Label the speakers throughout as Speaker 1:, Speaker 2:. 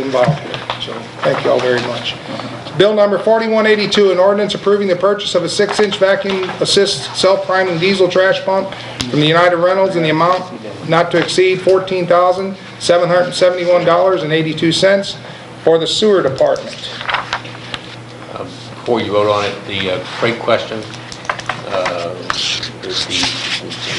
Speaker 1: involved here. So thank you all very much. Bill number 4182, an ordinance approving the purchase of a six-inch vacuum assist self-priming diesel trash pump from the United Rentals in the amount not to exceed $14,771.82 for the sewer department.
Speaker 2: Before you vote on it, the uh, freight question, uh, the the-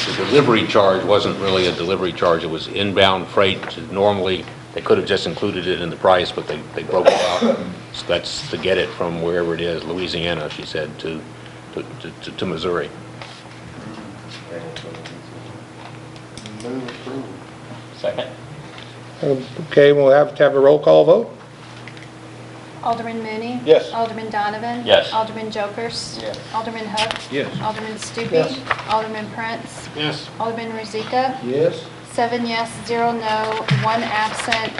Speaker 2: the delivery charge wasn't really a delivery charge, it was inbound freight. Normally, they could have just included it in the price, but they they broke it out. So that's to get it from wherever it is, Louisiana, she said, to to to to Missouri.
Speaker 3: Second.
Speaker 1: Okay, we'll have to have a roll call vote.
Speaker 4: Alderman Mooney?
Speaker 3: Yes.
Speaker 4: Alderman Donovan?
Speaker 3: Yes.
Speaker 4: Alderman Jokers?
Speaker 3: Yes.
Speaker 4: Alderman Hook?
Speaker 2: Yes.
Speaker 4: Alderman Stupi?
Speaker 1: Yes.
Speaker 4: Alderman Prince?
Speaker 2: Yes.
Speaker 4: Alderman Rozika?
Speaker 3: Yes.
Speaker 4: Seven yes, zero no, one absent.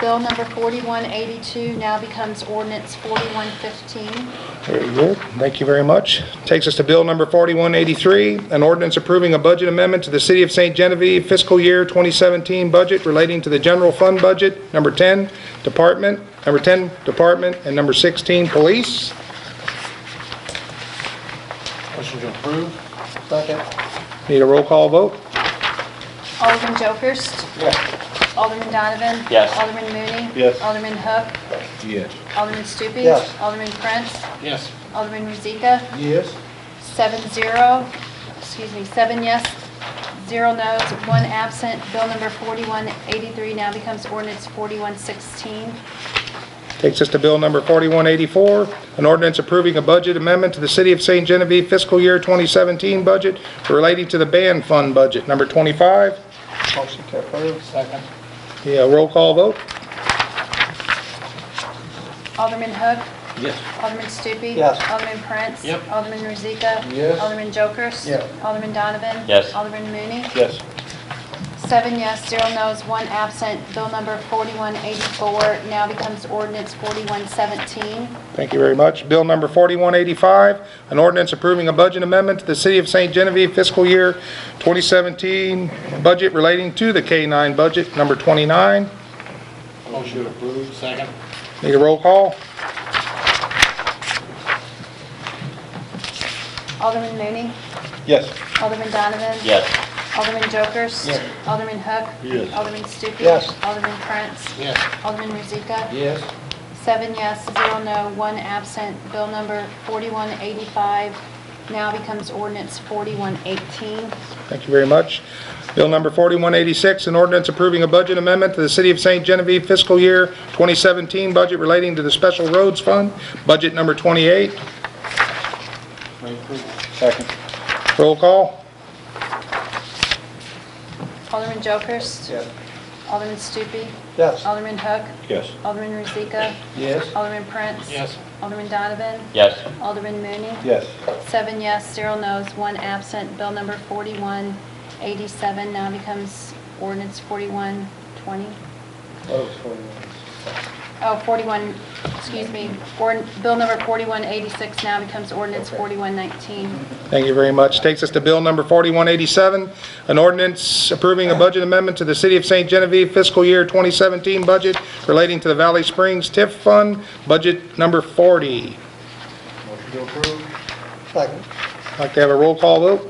Speaker 4: Bill number 4182 now becomes ordinance 4115.
Speaker 1: There you go. Thank you very much. Takes us to bill number 4183, an ordinance approving a budget amendment to the City of St. Genevieve fiscal year 2017 budget relating to the general fund budget, number 10, department, number 10, department, and number 16, police.
Speaker 3: Motion to approve. Second.
Speaker 1: Need a roll call vote?
Speaker 4: Alderman Jokers?
Speaker 3: Yes.
Speaker 4: Alderman Donovan?
Speaker 3: Yes.
Speaker 4: Alderman Mooney?
Speaker 3: Yes.
Speaker 4: Alderman Hook?
Speaker 3: Yes.
Speaker 4: Alderman Stupi?
Speaker 3: Yes.
Speaker 4: Alderman Prince?
Speaker 3: Yes.
Speaker 4: Alderman Rozika?
Speaker 3: Yes.
Speaker 4: Seven zero, excuse me, seven yes, zero no's, one absent. Bill number 4183 now becomes ordinance 4116.
Speaker 1: Takes us to bill number 4184, an ordinance approving a budget amendment to the City of St. Genevieve fiscal year 2017 budget relating to the band fund budget, number 25.
Speaker 3: Motion to approve. Second.
Speaker 1: Yeah, roll call vote?
Speaker 4: Alderman Hook?
Speaker 3: Yes.
Speaker 4: Alderman Stupi?
Speaker 3: Yes.
Speaker 4: Alderman Prince?
Speaker 3: Yep.
Speaker 4: Alderman Rozika?
Speaker 3: Yes.
Speaker 4: Alderman Jokers?
Speaker 3: Yeah.
Speaker 4: Alderman Donovan?
Speaker 3: Yes.
Speaker 4: Alderman Mooney?
Speaker 3: Yes.
Speaker 4: Seven yes, zero no's, one absent. Bill number 4184 now becomes ordinance 4117.
Speaker 1: Thank you very much. Bill number 4185, an ordinance approving a budget amendment to the City of St. Genevieve fiscal year 2017 budget relating to the K-9 budget, number 29.
Speaker 3: Motion to approve. Second.
Speaker 1: Need a roll call?
Speaker 4: Alderman Mooney?
Speaker 3: Yes.
Speaker 4: Alderman Donovan?
Speaker 3: Yes.
Speaker 4: Alderman Jokers?
Speaker 3: Yes.
Speaker 4: Alderman Hook?
Speaker 3: Yes.
Speaker 4: Alderman Stupi?
Speaker 3: Yes.
Speaker 4: Alderman Prince?
Speaker 3: Yes.
Speaker 4: Alderman Rozika?
Speaker 3: Yes.
Speaker 4: Seven yes, zero no, one absent. Bill number 4185 now becomes ordinance 4118.
Speaker 1: Thank you very much. Bill number 4186, an ordinance approving a budget amendment to the City of St. Genevieve fiscal year 2017 budget relating to the Special Roads Fund, budget number 28.
Speaker 3: Second.
Speaker 1: Roll call?
Speaker 4: Alderman Jokers?
Speaker 3: Yes.
Speaker 4: Alderman Stupi?
Speaker 3: Yes.
Speaker 4: Alderman Hook?
Speaker 3: Yes.
Speaker 4: Alderman Rozika?
Speaker 3: Yes.
Speaker 4: Alderman Prince?
Speaker 3: Yes.
Speaker 4: Alderman Donovan?
Speaker 3: Yes.
Speaker 4: Alderman Mooney?
Speaker 3: Yes.
Speaker 4: Seven yes, zero no's, one absent. Bill number 4187 now becomes ordinance 4120. Oh, 41, excuse me, Ord- bill number 4186 now becomes ordinance 4119.
Speaker 1: Thank you very much. Takes us to bill number 4187, an ordinance approving a budget amendment to the City of St. Genevieve fiscal year 2017 budget relating to the Valley Springs TIF Fund, budget number 40.
Speaker 3: Motion to approve. Second.
Speaker 1: Like to have a roll call vote?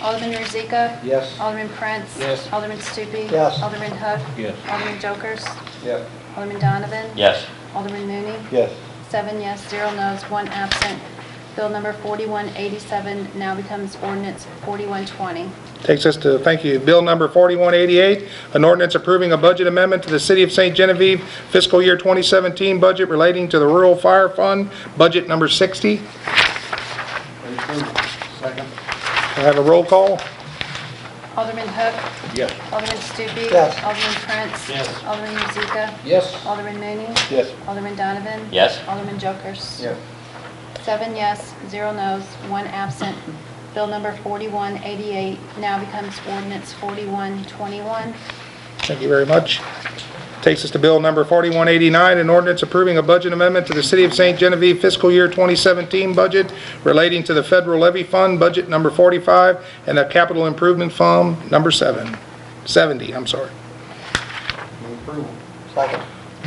Speaker 4: Alderman Rozika?
Speaker 3: Yes.
Speaker 4: Alderman Prince?
Speaker 3: Yes.
Speaker 4: Alderman Stupi?
Speaker 3: Yes.
Speaker 4: Alderman Hook?
Speaker 3: Yes.
Speaker 4: Alderman Jokers?
Speaker 3: Yes.
Speaker 4: Alderman Donovan?
Speaker 3: Yes.
Speaker 4: Alderman Mooney?
Speaker 3: Yes.
Speaker 4: Seven yes, zero no's, one absent. Bill number 4187 now becomes ordinance 4120.
Speaker 1: Takes us to, thank you, bill number 4188, an ordinance approving a budget amendment to the City of St. Genevieve fiscal year 2017 budget relating to the Rural Fire Fund, budget number 60. Can
Speaker 3: Second.
Speaker 1: I have a roll call?
Speaker 4: Alderman Hook?
Speaker 3: Yes.
Speaker 4: Alderman Stupi?
Speaker 3: Yes.
Speaker 4: Alderman Prince?
Speaker 3: Yes.
Speaker 4: Alderman Rozika?
Speaker 3: Yes.
Speaker 4: Alderman Mooney?
Speaker 3: Yes.
Speaker 4: Alderman Donovan?
Speaker 3: Yes.
Speaker 4: Alderman Jokers? Seven yes, zero no's, one absent. Bill number 4188 now becomes ordinance 4121.
Speaker 1: Thank you very much. Takes us to bill number 4189, an ordinance approving a budget amendment to the City of St. Genevieve fiscal year 2017 budget relating to the federal levy fund, budget number 45, and the capital improvement fund, number 7, 70, I'm sorry.
Speaker 3: Move approval. Second.